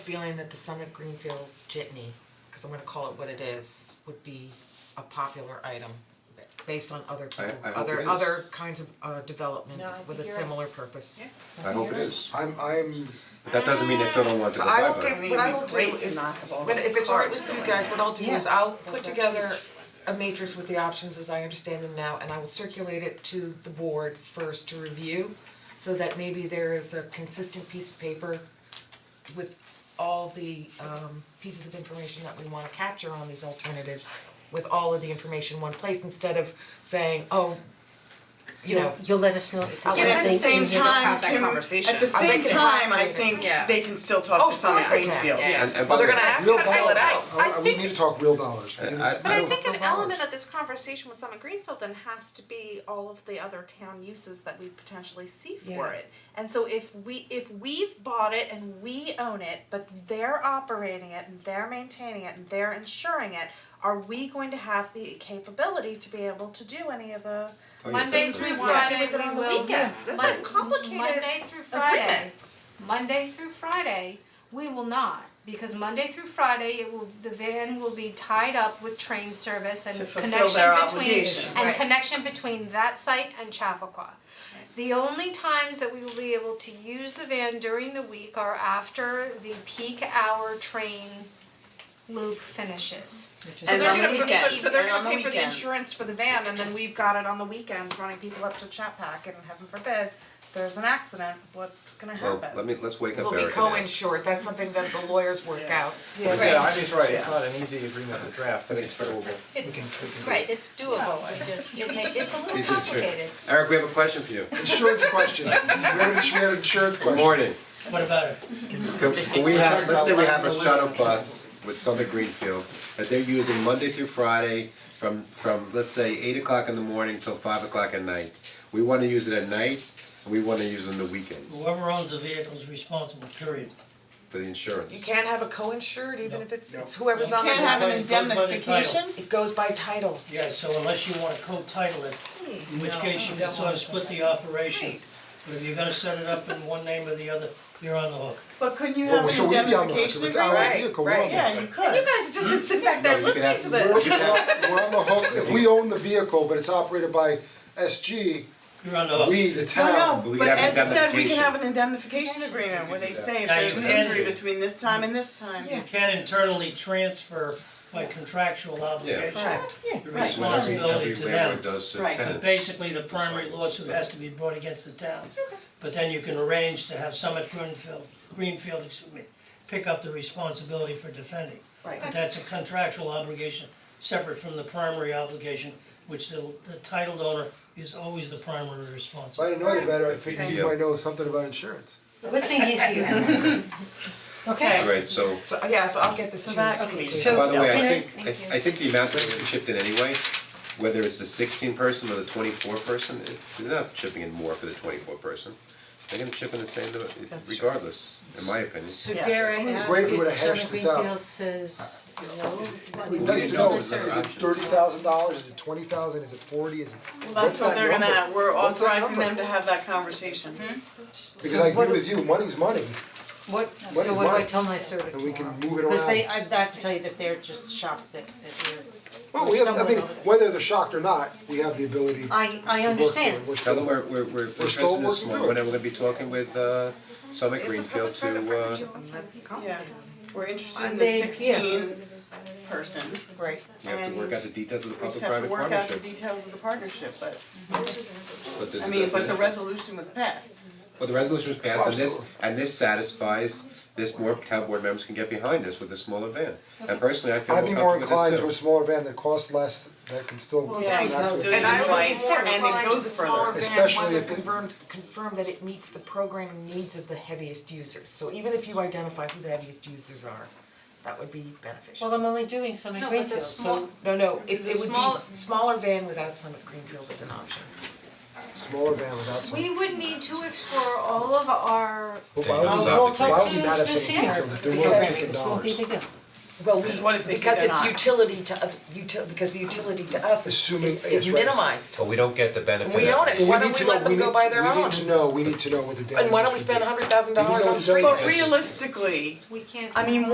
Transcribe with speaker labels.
Speaker 1: feeling that the Summit Greenfield Jitney, cause I'm gonna call it what it is, would be a popular item based on other people,
Speaker 2: I hope it
Speaker 1: other
Speaker 2: is.
Speaker 1: other kinds of uh
Speaker 3: No, I
Speaker 1: developments with a
Speaker 3: think you're right.
Speaker 1: similar purpose.
Speaker 2: I hope it is.
Speaker 4: I'm, I'm,
Speaker 2: But that doesn't mean they still don't want to go
Speaker 1: So I
Speaker 2: buy
Speaker 1: will
Speaker 2: for it.
Speaker 1: give, what I will do
Speaker 3: Great to
Speaker 1: is,
Speaker 3: knock up all
Speaker 1: when,
Speaker 3: those
Speaker 1: if it's all right
Speaker 3: cars
Speaker 1: with you
Speaker 3: going
Speaker 1: guys, what I'll do is
Speaker 3: Yeah.
Speaker 1: I'll put
Speaker 3: that's
Speaker 1: together a matrix with the options as I understand them now, and I will circulate it to the board first to review. So that maybe there is a consistent piece of paper with all the um pieces of information that we wanna capture on these alternatives. With all of the information in one place, instead of saying, oh, you know,
Speaker 5: you'll let us know if there's
Speaker 1: And
Speaker 5: something
Speaker 1: at the
Speaker 5: in here that's-
Speaker 3: have that
Speaker 6: Tim,
Speaker 3: conversation.
Speaker 6: At the
Speaker 1: I
Speaker 6: same
Speaker 1: think it-
Speaker 6: time, I think
Speaker 3: Yeah.
Speaker 6: they can still
Speaker 1: Oh,
Speaker 6: talk to
Speaker 1: of
Speaker 6: Summit
Speaker 1: course they can.
Speaker 6: Greenfield.
Speaker 3: Yeah.
Speaker 2: And and by
Speaker 1: well,
Speaker 2: the
Speaker 1: they're
Speaker 2: way,
Speaker 1: gonna have
Speaker 4: real
Speaker 1: to
Speaker 4: dollars,
Speaker 1: fill it out.
Speaker 4: I, I- we need to talk real dollars. We
Speaker 2: I-
Speaker 4: need-
Speaker 2: I- I
Speaker 4: real
Speaker 7: But I
Speaker 2: don't-
Speaker 7: think an
Speaker 4: dollars.
Speaker 7: element of this conversation with Summit Greenfield then has to be all of the other town uses that we potentially see for
Speaker 1: Yeah.
Speaker 7: it. And so if we, if we've bought it and we own it, but they're operating it and they're maintaining it and they're insuring it, are we going to have the capability to be able to do any of
Speaker 2: Oh,
Speaker 7: the
Speaker 2: yeah.
Speaker 8: Monday through Friday,
Speaker 7: Just
Speaker 8: we
Speaker 7: on the
Speaker 8: will.
Speaker 7: weekends. That's a
Speaker 8: Mon-
Speaker 7: complicated
Speaker 8: Monday through Friday, Monday through Friday, we will not, because Monday through Friday, it will, the van will be tied up with train service and
Speaker 3: To fulfill
Speaker 8: connection
Speaker 3: their
Speaker 8: between,
Speaker 3: obligation.
Speaker 8: and connection between that site and Chappaqua. The only times that we will be able to use the van during the week are after the peak hour train loop finishes.
Speaker 7: So
Speaker 3: And
Speaker 7: they're
Speaker 3: on the
Speaker 7: gonna, but- but-
Speaker 3: weekends,
Speaker 7: so they're
Speaker 3: and on
Speaker 7: gonna
Speaker 3: the
Speaker 7: pay for the
Speaker 3: weekends.
Speaker 7: insurance for the van, and then we've got it on the weekends running people up to Chappaq, and heaven forbid, there's an accident, what's gonna
Speaker 2: Well, let
Speaker 7: happen?
Speaker 2: me, let's wake up
Speaker 1: Will be
Speaker 2: Eric and ask.
Speaker 1: co-insured, that's something that the lawyers work out.
Speaker 9: Yeah, I just right, it's not an easy agreement to draft, but it's doable.
Speaker 8: It's, right, it's doable, it just, it ma- it's a little
Speaker 2: He's insured.
Speaker 8: complicated.
Speaker 2: Eric, we have a question for you.
Speaker 4: Insurance question, we have an ins- we have an insurance
Speaker 2: Good
Speaker 4: question.
Speaker 2: morning.
Speaker 10: What about it?
Speaker 2: Can, can we have, let's say we have a shuttle bus with Summit Greenfield that they're using Monday through Friday from, from, let's say, eight o'clock in the morning till five o'clock at night. We wanna use it at night and we wanna use it on the weekends
Speaker 10: Whoever owns the vehicle is responsible, period.
Speaker 2: for the insurance.
Speaker 1: You can't have a co-insured even if it's
Speaker 10: No.
Speaker 1: it's whoever's on the.
Speaker 6: Can't have an
Speaker 10: It goes by the title.
Speaker 6: indemnification?
Speaker 1: It goes by title.
Speaker 10: Yeah, so unless you wanna co-title it, in which case you can sort of split the operation. But if you're gonna set it up in one name or the other, you're on the hook.
Speaker 6: But couldn't you
Speaker 4: Well,
Speaker 6: have
Speaker 4: so
Speaker 6: an
Speaker 4: we'd be on the hook, if
Speaker 6: indemnification
Speaker 4: it's our
Speaker 6: agreement?
Speaker 4: vehicle, we're on the
Speaker 6: Yeah,
Speaker 4: hook.
Speaker 6: you could.
Speaker 7: guys have just been sitting back there
Speaker 2: No, you can have-
Speaker 4: We're, we're- we're on the hook, if we own the vehicle, but it's operated by SG,
Speaker 10: You're on the hook.
Speaker 4: we, the
Speaker 6: No,
Speaker 4: town.
Speaker 2: But
Speaker 6: no,
Speaker 2: we
Speaker 6: but
Speaker 2: could have
Speaker 6: Ed said we
Speaker 2: indemnification.
Speaker 6: can have an indemnification agreement where they say if
Speaker 10: Yeah, you
Speaker 6: there's an
Speaker 10: can
Speaker 6: injury
Speaker 10: do.
Speaker 6: between this time and this time.
Speaker 10: You can't internally transfer by contractual obligation
Speaker 6: Correct.
Speaker 10: the
Speaker 2: That's what every,
Speaker 10: responsibility
Speaker 2: every
Speaker 10: to
Speaker 2: landlord
Speaker 10: them.
Speaker 2: does to
Speaker 6: Right.
Speaker 2: tenants.
Speaker 10: But basically, the primary
Speaker 2: Besides,
Speaker 10: lawsuit
Speaker 2: so-
Speaker 10: has to be brought against the town. But then you can arrange to have Summit Greenfield, Greenfield, excuse me, pick up the responsibility for defending.
Speaker 6: Right.
Speaker 10: But that's a contractual obligation, separate from the primary obligation, which the, the title owner is always the primary
Speaker 4: If I
Speaker 10: responsible.
Speaker 4: didn't know any better, I think
Speaker 2: Thank
Speaker 4: you
Speaker 2: you.
Speaker 4: might know something about insurance.
Speaker 5: Good thing he's here.
Speaker 6: Okay.
Speaker 2: Alright, so,
Speaker 1: So, yeah, so I'll get this to you.
Speaker 6: okay,
Speaker 5: So
Speaker 2: by the way,
Speaker 5: can
Speaker 2: I
Speaker 5: I-
Speaker 2: think, I, I think the amount that we're chipped in anyway, whether it's the sixteen person or the twenty-four person, it- they're not chipping in more for the twenty-four person. They're gonna chip in the same amount regardless, in my opinion.
Speaker 5: So dare I ask
Speaker 4: Great if we would've
Speaker 5: if Summit
Speaker 4: hashed this out.
Speaker 5: Greenfield says no?
Speaker 4: It'd be nice to
Speaker 2: didn't
Speaker 4: know,
Speaker 2: know
Speaker 4: is
Speaker 2: there was
Speaker 4: it
Speaker 2: another option.
Speaker 4: thirty thousand dollars, is it twenty thousand, is it forty, is it,
Speaker 6: Well,
Speaker 4: what's
Speaker 6: that's what
Speaker 4: that
Speaker 6: they're gonna,
Speaker 4: number?
Speaker 6: we're
Speaker 4: What's that
Speaker 6: authorizing them
Speaker 4: number?
Speaker 6: to have that conversation.
Speaker 4: Because I agree with you, money's money,
Speaker 5: What,
Speaker 4: What
Speaker 5: so
Speaker 4: is
Speaker 5: what do I
Speaker 4: mine?
Speaker 5: tell my servant
Speaker 4: and we can
Speaker 5: tomorrow?
Speaker 4: move it around.
Speaker 5: Cause they, I have to tell you that they're just shocked that that we're
Speaker 4: Well,
Speaker 5: we're
Speaker 4: we have, I
Speaker 5: stumbling
Speaker 4: mean,
Speaker 5: over this.
Speaker 4: whether they're shocked or not, we have the ability to work
Speaker 5: I I
Speaker 4: through
Speaker 5: understand,
Speaker 4: it,
Speaker 2: Now
Speaker 4: we're
Speaker 2: that
Speaker 4: still,
Speaker 2: we're, we're, we're
Speaker 4: still
Speaker 2: addressing this
Speaker 4: working
Speaker 2: one,
Speaker 4: through
Speaker 2: when
Speaker 4: it.
Speaker 2: we're gonna be talking with, uh, Summit Greenfield to, uh,
Speaker 6: Yeah, we're interested
Speaker 5: Uh,
Speaker 6: in the
Speaker 5: they- yeah.
Speaker 6: sixteen person.
Speaker 1: Right.
Speaker 2: we have to work out the details of the
Speaker 6: We
Speaker 2: public
Speaker 6: just have to
Speaker 2: private
Speaker 6: work out the
Speaker 2: partnership,
Speaker 6: details of the partnership, but,
Speaker 2: but this
Speaker 6: I
Speaker 2: is
Speaker 6: mean, but the
Speaker 2: definition.
Speaker 6: resolution was passed.
Speaker 2: Well, the resolution was passed and this, and this satisfies, this more town board members can get behind this with a smaller van. And personally, I feel
Speaker 4: I'd
Speaker 2: we're
Speaker 4: be more
Speaker 2: comfortable with
Speaker 4: inclined
Speaker 2: it
Speaker 4: to a
Speaker 2: too.
Speaker 4: smaller van that costs less, that can still.
Speaker 1: Well,
Speaker 6: Yeah,
Speaker 1: there's
Speaker 6: you can
Speaker 4: that's
Speaker 1: no-
Speaker 6: still
Speaker 4: it.
Speaker 1: And I
Speaker 6: use
Speaker 1: would be
Speaker 6: lights
Speaker 1: more
Speaker 6: and it
Speaker 1: inclined to
Speaker 6: goes
Speaker 1: the
Speaker 6: further.
Speaker 1: smaller van once
Speaker 4: Especially
Speaker 1: it
Speaker 4: if it-
Speaker 1: confirmed, confirmed that it meets the programming needs of the heaviest users. So even if you identify who the heaviest users are, that would be
Speaker 5: well,
Speaker 1: beneficial.
Speaker 5: I'm only doing Summit
Speaker 8: No, but the
Speaker 5: Greenfield, so
Speaker 8: small-
Speaker 1: No, no, if it would
Speaker 8: small-
Speaker 1: be smaller van without Summit Greenfield as an option.
Speaker 4: Smaller van without some.
Speaker 8: We would need to explore all of our
Speaker 4: Well,
Speaker 2: Take
Speaker 4: Why would we
Speaker 2: it out.
Speaker 4: not,
Speaker 5: we'll
Speaker 2: Why
Speaker 5: talk to
Speaker 4: would we not have
Speaker 5: this
Speaker 4: some
Speaker 5: year.
Speaker 4: people if they're worth
Speaker 5: Because
Speaker 4: fifteen
Speaker 5: it's-
Speaker 4: dollars?
Speaker 5: we'll be together.
Speaker 1: Well, we,
Speaker 6: Because what if they say
Speaker 1: because
Speaker 6: they're
Speaker 1: it's
Speaker 6: not?
Speaker 1: utility to, oth- util, because the utility to us is
Speaker 4: Assuming-
Speaker 1: is is
Speaker 4: yes, right.
Speaker 1: minimized.
Speaker 2: But we don't get the benefit of
Speaker 1: We own
Speaker 2: that.
Speaker 1: it, why don't we let them go buy their own?
Speaker 4: We need to know, we need to know what the data
Speaker 1: And why don't we spend a hundred thousand dollars on
Speaker 4: We need to know
Speaker 1: street?
Speaker 4: what the
Speaker 6: But realistically,
Speaker 8: we can't.
Speaker 6: I mean,